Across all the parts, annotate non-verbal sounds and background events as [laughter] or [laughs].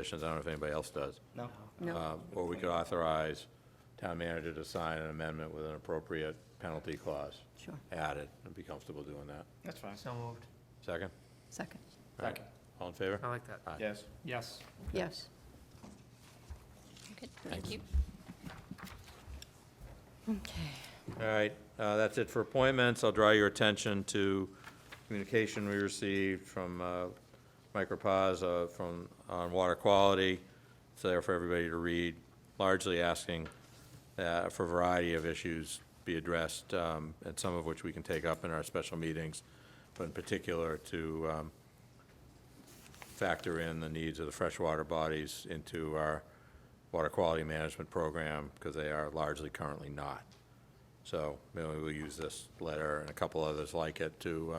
conditions, I don't know if anybody else does. No? Uh, Or we could authorize town manager to sign an amendment with an appropriate penalty clause Sure, added. I'd be comfortable doing that. That's fine. So moved. Second? second. All right. Second. All in favor? I like that. Aye. Yes. Yes. Yes. Good, thank you. Okay. All right, uh, that's it for appointments. I'll draw your attention to communication we received from uh, Micropause uh, from, on water quality. It's there for everybody to read, largely asking uh, for a variety of issues be addressed, um, and some of which we can take up in our special meetings, but in particular to um, factor in the needs of the freshwater bodies into our water quality management program, because they are largely currently not. So maybe we'll use this letter and a couple others like it to uh,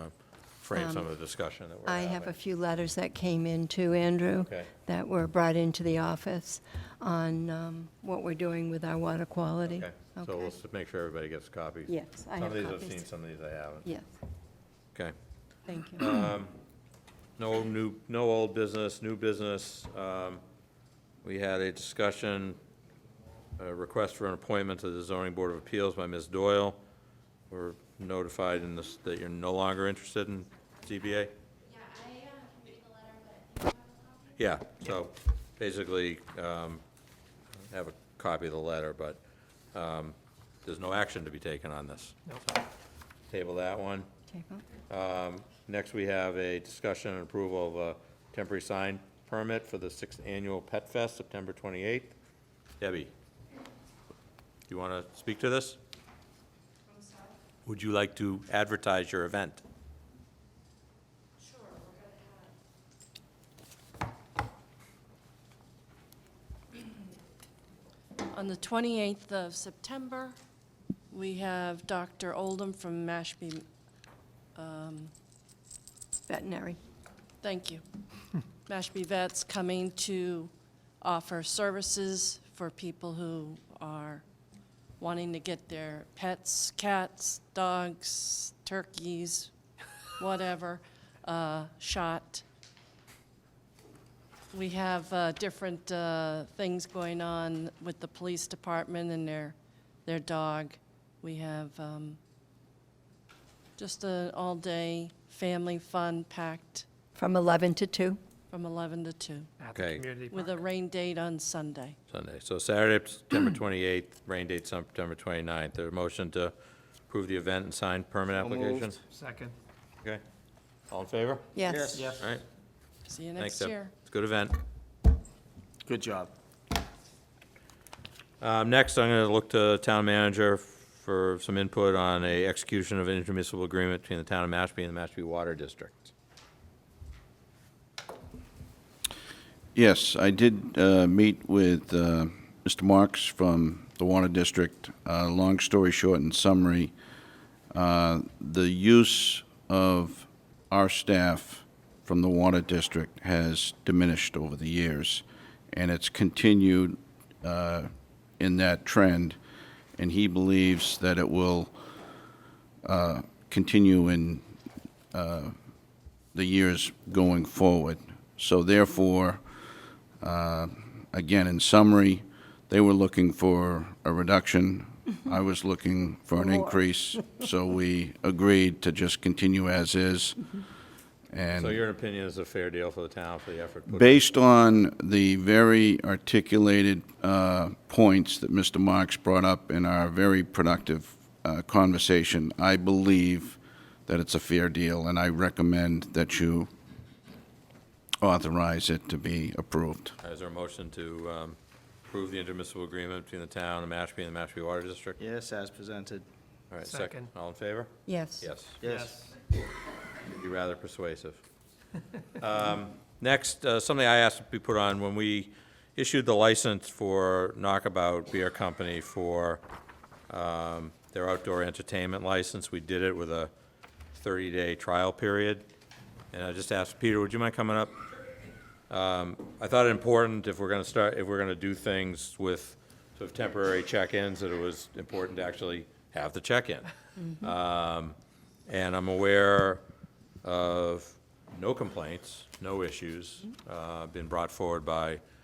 frame some of the discussion that we're Um, I having. have a few letters that came in too, Andrew, uh, Okay. that were brought into the office on um, what we're doing with our water quality. Okay, so we'll s- make sure everybody gets copies. Yes, I Some have of these I've copies. seen, some of these I haven't. Yes, Okay. thank Uh, you. No new, no old business, new business. Um, We had a discussion, a request for an appointment to the zoning board of appeals by Ms. Doyle. We're notified in this, that you're no longer interested in ZBA? Yeah, so basically, um, I have a copy of the letter, but um, there's no action to be taken on this. Nope. Table that one. Okay, well, Um, Next, we have a discussion and approval of a temporary sign permit for the sixth annual Pet Fest, September 28th. Debbie, do you want to speak to this? Would you like to advertise your event? On the 28th of September, we have Dr. Oldham from Mashpee, Veterinary, thank you, Mashpee Vets coming to offer services for people who are wanting to get their pets, cats, dogs, turkeys, whatever, uh, shot. We have uh, different uh, things going on with the police department and their, their dog. We have um, just an all-day family fun packed from 11 to 2. from 11 to 2, At the Okay. community with a park. rain date on Sunday. Sunday. So Saturday, September 28th, [clears throat] rain date September 29th. There a motion to approve the event and sign permit So moved. application? Second. Okay. All in favor? Yes. All right. See you Thanks, next Deb. year. It's a good event. Good job. Um, Next, I'm going to look to town manager for some input on a execution of an intermunicipal agreement between the town of Mashpee and the Mashpee Water District. Yes, I did uh, meet with uh, Mr. Marks from the Water District. Uh, Long story short, in summary, uh, the use of our staff from the Water District has diminished over the years, and it's continued uh, in that trend, and he believes that it will uh, continue in uh, the years going forward. So therefore, uh, again, in summary, they were looking for a reduction. I was looking for an increase, so we agreed to just continue as is. So And your opinion is a fair deal for the town for the effort put in? based on the very articulated uh, points that Mr. Marks brought up in our very productive uh, conversation, I believe that it's a fair deal, and I recommend that you authorize it to be approved. Is there a motion to um, approve the intermunicipal agreement between the town of Mashpee and the Mashpee Water District? Yes, as presented. All right, Second. All in favor? Yes. Yes. Yes. be rather persuasive. [laughs] Um, Next, uh, something I asked to be put on, when we issued the license for Knockabout Beer Company for um, their outdoor entertainment license, we did it with a 30-day trial period. And I just asked, Peter, would you mind coming up? Um, I thought it important, if we're gonna start, if we're gonna do things with sort of temporary check-ins, that it was important to actually have the check-in. Um, And I'm aware of no complaints, no issues, uh, been brought forward by